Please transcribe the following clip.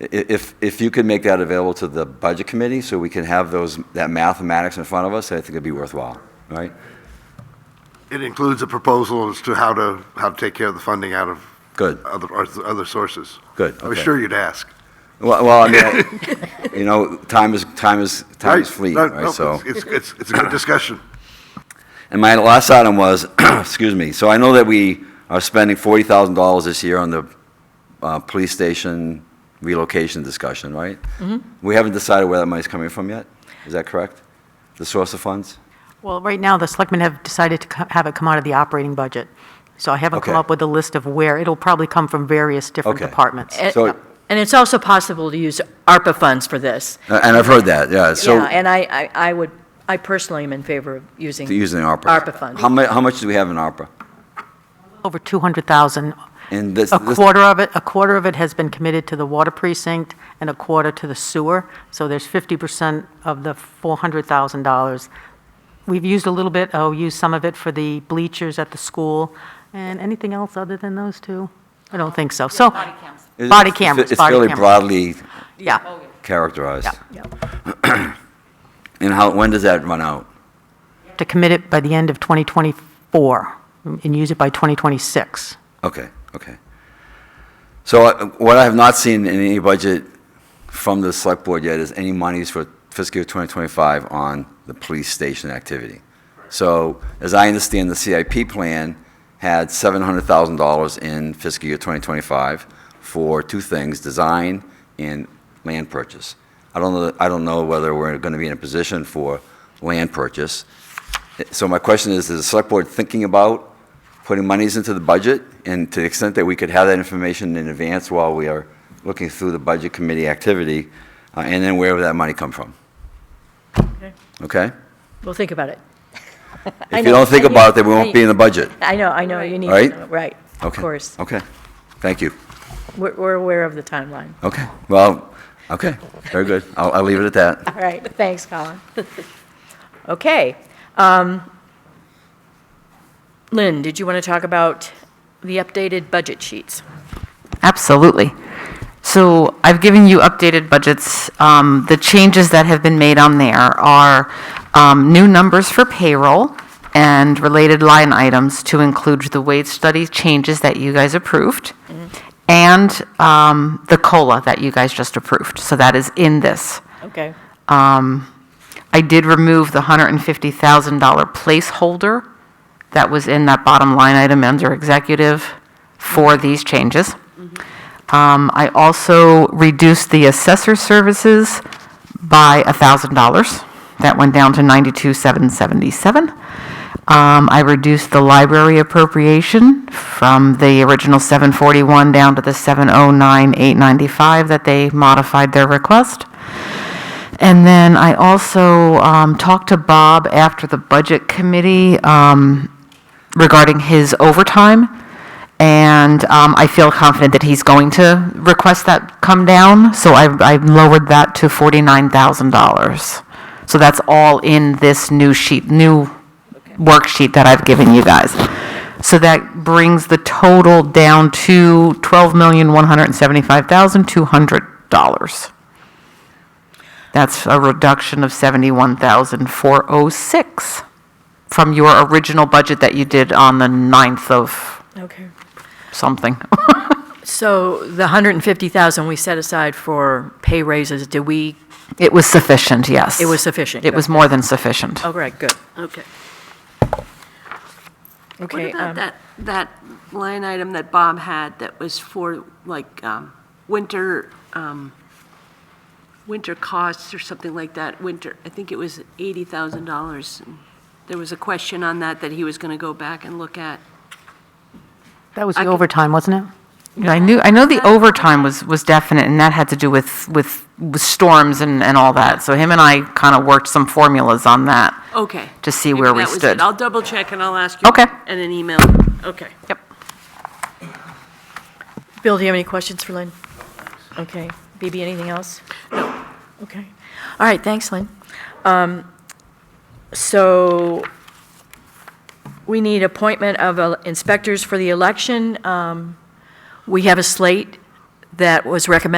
i- if, if you could make that available to the budget committee so we can have those, that mathematics in front of us, I think it'd be worthwhile, right? It includes a proposal as to how to, how to take care of the funding out of Good. other, other sources. Good, I was okay. sure you'd ask. Well, well, I mean, I- you know, time is, time is, time is Right? fleeting, No, right? no, So, It's, it's, it's a good discussion. and my last item was, excuse me, so I know that we are spending $40,000 this year on the uh, police station relocation discussion, right? We haven't decided where that money's coming from yet, is that correct? The source of funds? Well, right now, the selectmen have decided to co- have it come out of the operating budget. So I haven't come Okay. up with a list of where. It'll probably come from various different Okay. departments. Eh. So- And it's also possible to use ARPA funds for this. Uh, And I've heard that, yeah, so. Yeah, and I, I I would, I personally am in favor of using. Using ARPA. ARPA How funds. mu, how much do we have in ARPA? Over 200,000. And this, A this- quarter of it, a quarter of it has been committed to the water precinct and a quarter to the sewer. So there's 50% of the $400,000. We've used a little bit, oh, used some of it for the bleachers at the school. And anything else other than those two? I don't think so. So. Body cameras. it's- Body cameras, It's fairly broadly Yeah. characterized. Yeah. And how, when does that run out? to commit it by the end of 2024 and use it by 2026. Okay, okay. So uh, what I have not seen in any budget from the select board yet is any monies for fiscal year 2025 on the police station activity. So as I understand, the CIP plan had $700,000 in fiscal year 2025 for two things, design and land purchase. I don't know, I don't know whether we're going to be in a position for land purchase. So my question is, is the select board thinking about putting monies into the budget? And to the extent that we could have that information in advance while we are looking through the budget committee activity, uh, and then where would that money come from? Okay? We'll think about it. I If you know, don't think I need- about it, we I- won't be in the budget. I know, I know, you need to Right? know, right, of Okay. course. Okay, thank you. We're, we're aware of the timeline. Okay, well, okay, very good. I'll, I'll leave it at that. All right, thanks, Colin. Okay. um, Lynn, did you want to talk about the updated budget sheets? Absolutely. So I've given you updated budgets. Um, The changes that have been made on there are um, new numbers for payroll and related line items to include the wage study changes that you guys approved and um, the COLA that you guys just approved. So that is in this. Okay. I did remove the $150,000 placeholder that was in that bottom line item under executive for these changes. Um, I also reduced the assessor services by $1,000. That went down to 92,777. Um, I reduced the library appropriation from the original 741 down to the 709,895 that they modified their request. And then I also um, talked to Bob after the Budget Committee um, regarding his overtime, and um, I feel confident that he's going to request that come down, so I've I've lowered that to $49,000. So that's all in this new sheet, new worksheet that I've given you guys. So that brings the total down to $12,175,200. That's a reduction of 71,406 from your original budget that you did on the 9th of Okay. something. So the 150,000 we set aside for pay raises, did we, It was sufficient, yes. it was sufficient? It was more than sufficient. Oh, right, good. Okay. What Okay. about um, that, that line item that Bob had that was for like um, winter, um, winter costs or something like that, winter, I think it was $80,000. and There was a question on that that he was going to go back and look at. That was I the could- overtime, wasn't it? Yeah, I knew, I know the overtime was, was definite, and that had to do with, with with storms and, and all that. So him and I kind of worked some formulas on that. Okay. To see Maybe where we that was it. stood. I'll double check and I'll ask you. Okay. In an email. Okay. Yep. Bill, do you have any questions for Lynn? Okay. BB, anything else? No. Okay. All right, thanks, Lynn. Um, So we need appointment of uh, inspectors for the election. Um, We have a slate that was recommended